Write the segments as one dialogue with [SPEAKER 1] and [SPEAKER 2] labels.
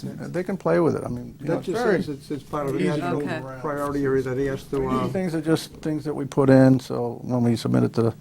[SPEAKER 1] They can play with it, I mean, you know,
[SPEAKER 2] That
[SPEAKER 1] it's
[SPEAKER 2] just
[SPEAKER 1] very,
[SPEAKER 2] says it's, it's part of the
[SPEAKER 1] Easy
[SPEAKER 3] to
[SPEAKER 2] national
[SPEAKER 3] move Okay.
[SPEAKER 1] around.
[SPEAKER 2] priority area that he has to, uh,
[SPEAKER 1] things are just things that we put in, so when we submit it to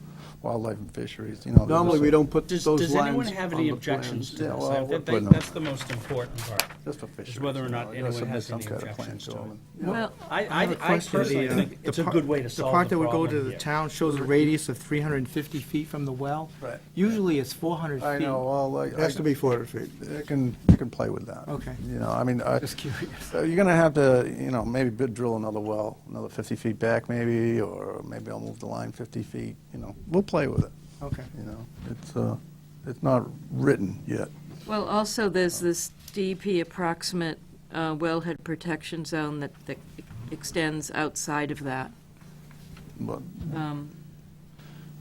[SPEAKER 1] Wildlife and Fisheries, you know. they'll just
[SPEAKER 2] normally we
[SPEAKER 1] say,
[SPEAKER 2] don't put
[SPEAKER 3] Does,
[SPEAKER 2] those lines
[SPEAKER 3] does anyone have any
[SPEAKER 2] on the
[SPEAKER 3] objections to
[SPEAKER 2] plans.
[SPEAKER 1] Yeah,
[SPEAKER 3] this?
[SPEAKER 1] well,
[SPEAKER 3] I
[SPEAKER 1] we're
[SPEAKER 3] think
[SPEAKER 1] putting them-
[SPEAKER 3] That's the most important part.
[SPEAKER 1] Just for fisheries.
[SPEAKER 3] whether or
[SPEAKER 1] you know,
[SPEAKER 3] not
[SPEAKER 1] you gotta
[SPEAKER 3] anyone
[SPEAKER 1] submit
[SPEAKER 3] has
[SPEAKER 1] some
[SPEAKER 3] any
[SPEAKER 1] kind of plan
[SPEAKER 3] objections to
[SPEAKER 1] them.
[SPEAKER 3] it.
[SPEAKER 4] Well,
[SPEAKER 3] I,
[SPEAKER 5] I
[SPEAKER 3] I,
[SPEAKER 5] have a
[SPEAKER 3] I
[SPEAKER 5] question.
[SPEAKER 3] personally
[SPEAKER 5] The, uh,
[SPEAKER 3] think
[SPEAKER 5] the
[SPEAKER 3] it's a
[SPEAKER 5] par-
[SPEAKER 3] good way to
[SPEAKER 5] The
[SPEAKER 3] solve
[SPEAKER 5] part
[SPEAKER 3] the
[SPEAKER 5] that would go
[SPEAKER 3] problem
[SPEAKER 5] to the
[SPEAKER 3] here.
[SPEAKER 5] town shows a radius of 350 feet from the well.
[SPEAKER 1] Right.
[SPEAKER 5] Usually it's 400 feet.
[SPEAKER 1] I know, well, like.
[SPEAKER 2] It has to be 400 feet.
[SPEAKER 1] They can, you can play with that.
[SPEAKER 5] Okay.
[SPEAKER 1] You know, I mean, I.
[SPEAKER 5] Just curious.
[SPEAKER 1] So you're gonna have to, you know, maybe bid drill another well, another 50 feet back maybe, or maybe I'll move the line 50 feet, you know, we'll play with it,
[SPEAKER 5] Okay.
[SPEAKER 1] you know. It's, uh, it's not written yet.
[SPEAKER 4] well, also, there's this DEP approximate uh, wellhead protection zone that that extends outside of that.
[SPEAKER 1] But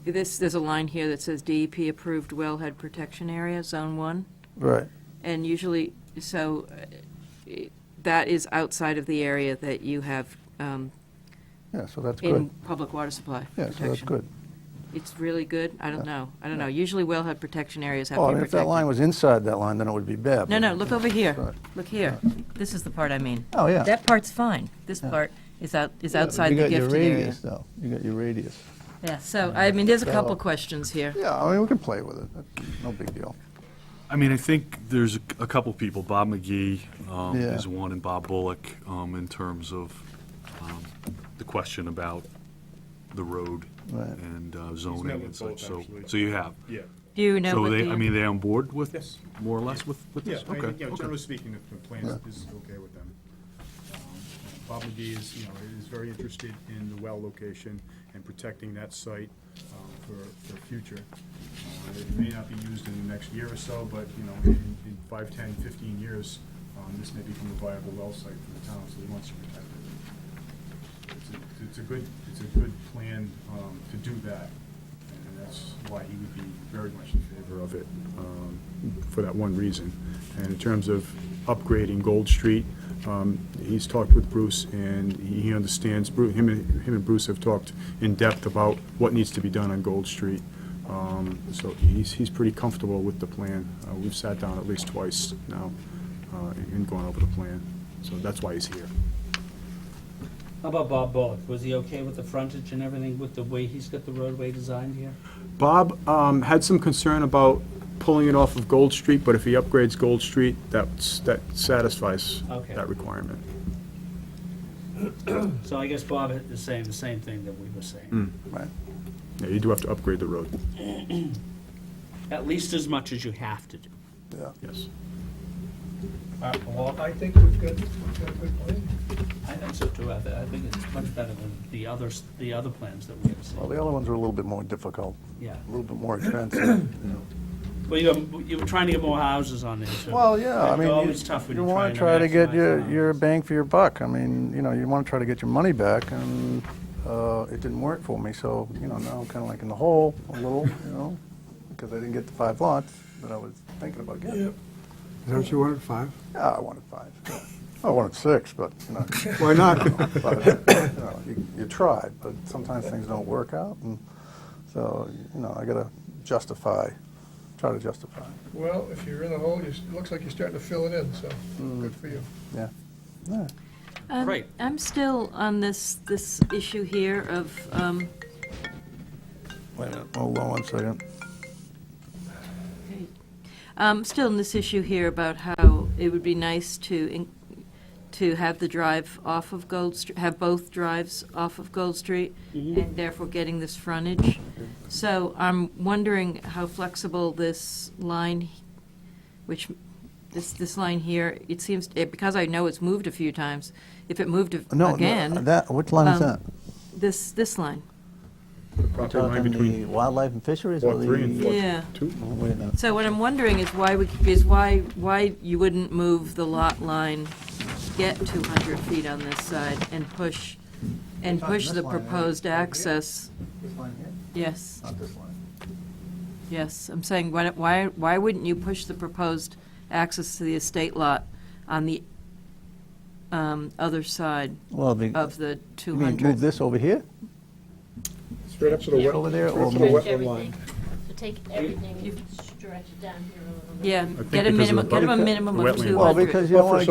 [SPEAKER 4] This, there's a line here that says DEP approved wellhead protection area, Zone 1,
[SPEAKER 1] Right,
[SPEAKER 4] and usually, so uh, it- that is outside of the area that you have um,
[SPEAKER 1] yeah, so that's
[SPEAKER 4] in
[SPEAKER 1] good.
[SPEAKER 4] public water supply
[SPEAKER 1] Yeah,
[SPEAKER 4] protection.
[SPEAKER 1] so that's good.
[SPEAKER 4] It's really good? I don't know. I don't
[SPEAKER 1] Yeah.
[SPEAKER 4] know. Usually wellhead protection areas have to
[SPEAKER 1] Oh, I
[SPEAKER 4] be
[SPEAKER 1] mean, if that line
[SPEAKER 4] protected.
[SPEAKER 1] was inside that line, then it would be bad.
[SPEAKER 4] No,
[SPEAKER 1] but-
[SPEAKER 4] no, look over here.
[SPEAKER 1] Right.
[SPEAKER 4] Look here. This is the part I mean.
[SPEAKER 1] Oh, yeah.
[SPEAKER 4] That part's fine. This
[SPEAKER 1] Yeah.
[SPEAKER 4] part is out, is outside the
[SPEAKER 1] You got
[SPEAKER 4] gifted
[SPEAKER 1] your
[SPEAKER 4] area.
[SPEAKER 1] radius, though. You got your radius.
[SPEAKER 4] Yeah, so, I mean, there's a couple
[SPEAKER 1] So-
[SPEAKER 4] questions here.
[SPEAKER 1] Yeah, I mean, we can play with it. That's No big deal.
[SPEAKER 6] I mean, I think there's a- a couple people, Bob McGee um,
[SPEAKER 1] Yeah.
[SPEAKER 6] is one, and Bob Bullock, um, in terms of um, the question about the road
[SPEAKER 1] Right.
[SPEAKER 6] and uh, zoning
[SPEAKER 7] met
[SPEAKER 6] and
[SPEAKER 7] with
[SPEAKER 6] such,
[SPEAKER 7] both,
[SPEAKER 6] so,
[SPEAKER 7] actually.
[SPEAKER 6] so you have.
[SPEAKER 7] Yeah,
[SPEAKER 4] Do you know
[SPEAKER 6] So
[SPEAKER 4] what
[SPEAKER 6] they, I mean,
[SPEAKER 4] the,
[SPEAKER 6] they on board with,
[SPEAKER 7] Yes.
[SPEAKER 6] more or less with with
[SPEAKER 7] yeah,
[SPEAKER 6] this?
[SPEAKER 7] I mean,
[SPEAKER 6] Okay,
[SPEAKER 7] you know,
[SPEAKER 6] okay.
[SPEAKER 7] generally speaking, if the plan is- is okay with them. Um, Bob McGee is, you know, is very interested in the well location and protecting that site um, for, for future. Uh, It may not be used in the next year or so, but, you know, in, in five, ten, fifteen years, um, this may become a viable well site for the town, so he wants to protect it. It's a- It's a good, it's a good plan um, to do that, and that's why he would be very much in favor of it, um, for that one reason. And in terms of upgrading Gold Street, um, he's talked with Bruce, and he understands, Bru- him and him and Bruce have talked in depth about what needs to be done on Gold Street. Um, So he's, he's pretty comfortable with the plan. Uh, We've sat down at least twice now uh, and gone over the plan, so that's why he's here.
[SPEAKER 8] How about Bob Bullock? Was he okay with the frontage and everything, with the way he's got the roadway designed here?
[SPEAKER 7] Bob um, had some concern about pulling it off of Gold Street, but if he upgrades Gold Street, that's, that satisfies
[SPEAKER 8] Okay.
[SPEAKER 7] that requirement.
[SPEAKER 8] So I guess Bob had the same, the same thing that we were
[SPEAKER 5] Hmm.
[SPEAKER 8] saying.
[SPEAKER 1] Right.
[SPEAKER 7] Yeah, you do have to upgrade the road,
[SPEAKER 8] At least as much as you have to do.
[SPEAKER 7] yes.
[SPEAKER 2] Well, I think we've got, we've got a good plan.
[SPEAKER 8] I think so too. I, thi- I think it's much better than the others, the other plans that we have
[SPEAKER 1] Well,
[SPEAKER 8] seen.
[SPEAKER 1] the other ones are a little bit more difficult,
[SPEAKER 8] Yeah.
[SPEAKER 1] a little bit more expensive.
[SPEAKER 8] Well, you, you were trying to get more houses on there, so.
[SPEAKER 1] Well, yeah, I
[SPEAKER 8] It's
[SPEAKER 1] mean,
[SPEAKER 8] always
[SPEAKER 1] you-
[SPEAKER 8] tough when
[SPEAKER 1] you
[SPEAKER 8] you're
[SPEAKER 1] want to try
[SPEAKER 8] trying
[SPEAKER 1] to get your,
[SPEAKER 8] maximize
[SPEAKER 1] your
[SPEAKER 8] houses.
[SPEAKER 1] bang for your buck. I mean, you know, you want to try to get your money back, and uh, it didn't work for me, so, you know, now I'm kind of like in the hole a little, you know, because I didn't get the five lots that I was thinking about getting.
[SPEAKER 2] Is that what you wanted, five?
[SPEAKER 1] Yeah, Ah, I wanted five. Oh, I wanted six, but, you know,
[SPEAKER 2] Why not?
[SPEAKER 1] but, you know, you- you tried, but sometimes things don't work out, and so, you know, I gotta justify, try to justify,
[SPEAKER 9] Well, if you're in a hole, you s- it looks like you're starting to fill it in, so good for you.
[SPEAKER 1] Mm. yeah. Yeah.
[SPEAKER 4] Um,
[SPEAKER 8] Right.
[SPEAKER 4] I'm still on this, this issue here of, um,
[SPEAKER 1] Wait a minute, hold on one second.
[SPEAKER 4] Um, still in this issue here about how it would be nice to, in- to have the drive off of Gold, Str- have both drives off of Gold Street, and therefore getting this frontage. So I'm wondering how flexible this line, which, this, this line here, it seems, eh, because I know it's moved a few times, if it moved a-
[SPEAKER 1] No, No,
[SPEAKER 4] again,
[SPEAKER 1] that, which line is
[SPEAKER 4] um,
[SPEAKER 1] that?
[SPEAKER 4] this, this line,
[SPEAKER 7] The property line between
[SPEAKER 1] wildlife and fisheries Oh,
[SPEAKER 7] Lot 3 and Lot
[SPEAKER 4] yeah.
[SPEAKER 7] 2?
[SPEAKER 1] Wait a minute.
[SPEAKER 4] So what I'm wondering is why we, is why, why you wouldn't move the lot line, get 200 feet on this side and push, and
[SPEAKER 1] Not
[SPEAKER 4] push
[SPEAKER 1] this
[SPEAKER 4] the
[SPEAKER 1] line, right?
[SPEAKER 4] proposed
[SPEAKER 1] Over here?
[SPEAKER 4] access.
[SPEAKER 1] This line here,
[SPEAKER 4] Yes,
[SPEAKER 1] not this line.
[SPEAKER 4] yes, I'm saying, why, don't- why, why wouldn't you push the proposed access to the estate lot on the um, other side
[SPEAKER 1] Well, the,
[SPEAKER 4] of the
[SPEAKER 1] you mean move
[SPEAKER 4] 200?
[SPEAKER 1] this over here,
[SPEAKER 2] Straight up to the
[SPEAKER 1] over there, or
[SPEAKER 2] That's the
[SPEAKER 1] move?
[SPEAKER 2] wetland line.
[SPEAKER 10] So take everything,
[SPEAKER 4] You've-
[SPEAKER 11] direct it down here a little bit.
[SPEAKER 10] Yeah,
[SPEAKER 7] think
[SPEAKER 10] get a
[SPEAKER 7] because of the
[SPEAKER 10] minimum, get him a
[SPEAKER 7] buffer-
[SPEAKER 10] minimum of
[SPEAKER 7] wetland.
[SPEAKER 10] 200.
[SPEAKER 7] Well,
[SPEAKER 4] Well, because you don't
[SPEAKER 1] Buffer
[SPEAKER 4] want to